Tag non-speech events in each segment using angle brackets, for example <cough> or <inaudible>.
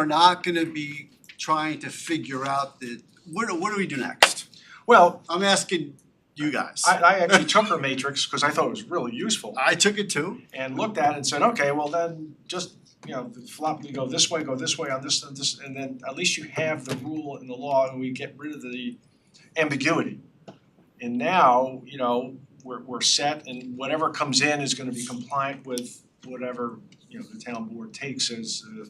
We're not gonna be trying to figure out the, what do, what do we do next? Well, I'm asking you guys. I I actually took her matrix because I thought it was really useful I took it too. and looked at it and said, okay, well then just, you know, the flop, you go this way, go this way on this and this, and then at least you have the rule and the law and we get rid of the ambiguity. And now, you know, we're we're set and whatever comes in is gonna be compliant with whatever, you know, the town board takes as uh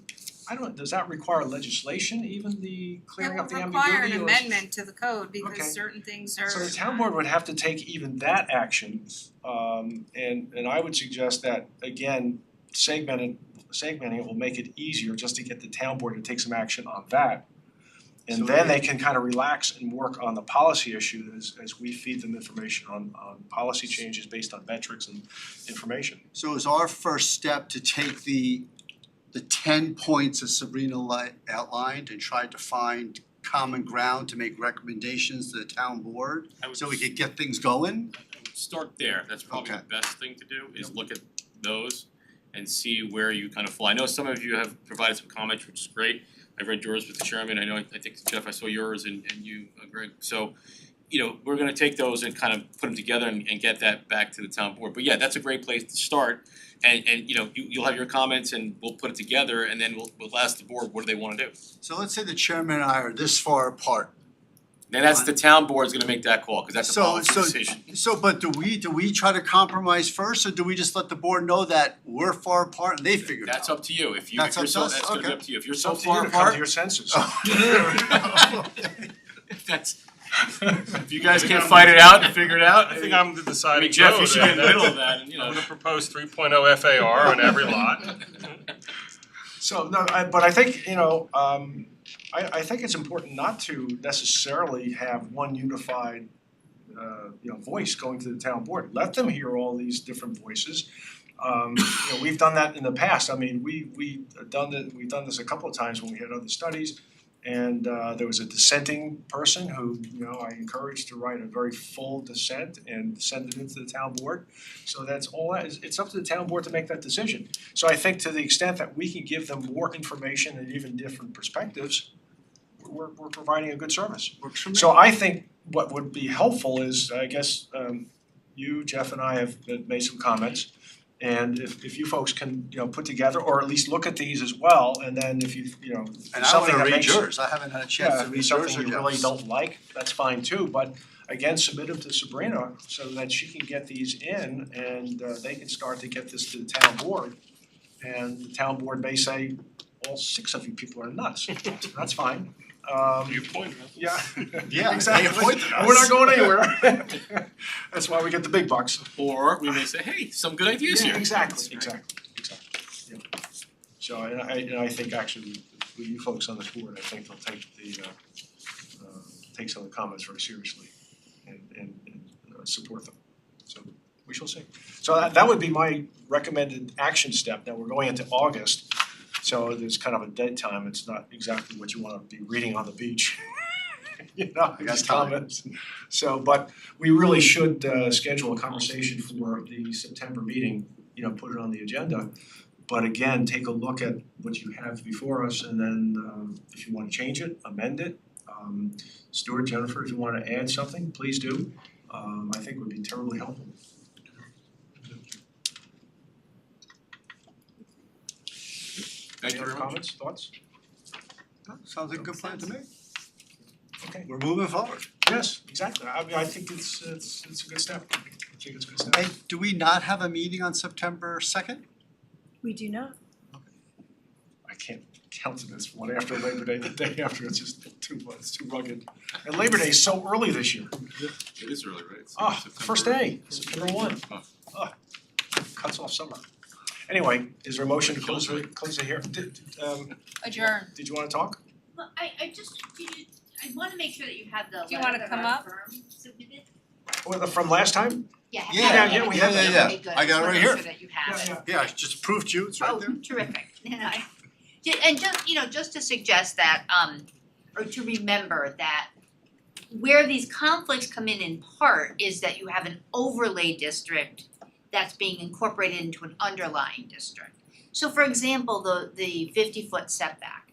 I don't, does that require legislation, even the clearing up the ambiguity It would require an or- amendment to the code Okay. because certain things are. So the town board would have to take even that action, um, and and I would suggest that, again, segmented, segmenting it will make it easier just to get the town board to take some action on that. So And then they can kind of relax and work on the policy issue as as we feed them information on on policy changes based on metrics and information. So is our first step to take the, the ten points that Sabrina li- outlined and try to find common ground to make recommendations to the town board? I would So we could get things going? start there, that's probably the Okay. best thing to do, is look at those and see where you kind of fly. I know some of you have provided some comments, which is great. I read yours with the chairman, I know, I think Jeff, I saw yours and and you, uh, Greg, so, you know, we're gonna take those and kind of put them together and and get that back to the town board. But yeah, that's a great place to start. And and you know, you you'll have your comments and we'll put it together and then we'll we'll ask the board, what do they wanna do? So let's say the chairman and I are this far apart. Then that's the town board's gonna make that call, cause that's a So- policy so- decision. So, but do we, do we try to compromise first, or do we just let the board know that we're far apart and they figure it out? That's up to you, if you, if That's you're up to so, us? that's gonna be Okay. up to you, if you're It's so up to you far to come to <laughs> apart, your senses. that's, <laughs> <laughs> if you guys can't fight it out <laughs> and figure it out, I think I'm the I deciding mean, Jeff, you vote, should be in and the middle of that's- <laughs> that, and you I'm know. gonna propose three oh FAR on every lot. So, no, I, but I think, you know, um, I, I think it's important not to necessarily have one unified, uh, you know, voice going to the town board. Let them hear all these different voices. Um, you know, we've done that in the past. I mean, we, we done it, we've done this a couple of times when we had other studies. And, uh, there was a dissenting person who, you know, I encouraged to write a very full dissent and send it into the town board. So that's all that is, it's up to the town board to make that decision. So I think to the extent that we can give them more information and even different perspectives, we're we're providing a good service. Works for me. So I think what would be helpful is, I guess, um you, Jeff and I have uh, made some comments. And if if you folks can, you know, put together or at least look at these as well, and then if you, you know, And I something wanna that read makes yours, I haven't had a chance yeah, to if read it's yours something or you really Jeff's. don't like, that's fine too, but again, submit them to Sabrina so that she can get these in and uh, they can start to get this to the town board. And the town board may say, all six of you people are <laughs> nuts, that's fine. Um, You point. yeah, Yeah, they <laughs> exactly, appointed we're us. not going anywhere. <laughs> That's why we get the big bucks. Or we may say, hey, some good ideas here. Yeah, exactly, That's right. exactly, exactly, yeah. So and I and I think actually, with you folks on this board, I think they'll take the uh uh take some of the comments very seriously and and and uh, support them. So we shall see. So that that would be my recommended action step. Now, we're going into August, so there's kind of a dead time. It's not exactly what you wanna be reading on the beach. <laughs> You know, I got these time. comments. So, but we really should uh schedule a conversation for the September meeting, you know, put it on the agenda. But again, take a look at what you have before us and then um if you wanna change it, amend it. Um Stuart, Jennifer, if you wanna add something, please do. Um I think would be terribly helpful. Thank Any you very other much. comments, thoughts? Sounds like a good plan to me. Okay, We're moving forward. yes, exactly. I mean, I think it's it's it's a good step. I think it's a good step. Hey, do we not have a meeting on September second? We do not. I can't countenance one after Labor Day, the day after, it's just too, it's too rugged. And Labor Day is so early this year. It is early, right? It's Ah, first September. day, September one. Oh. Ah, cuts off summer. Anyway, is there a motion to close the, close the hearing? Did, um, Adjourn. did you wanna talk? Well, I I just, do you, I wanna make sure that you have the Do you wanna letter that come our up? firm submitted. Well, the- from last time? Yeah, have Yeah, that. yeah, we have that. Okay, good. I got it right Just wanna make here. sure that you have it. Yeah, I just proved you, it's right there. Oh, terrific, <laughs> and I, ju- and just, you know, just to suggest that, um, or to remember that where these conflicts come in in part is that you have an overlay district that's being incorporated into an underlying district. So for example, the the fifty foot setback,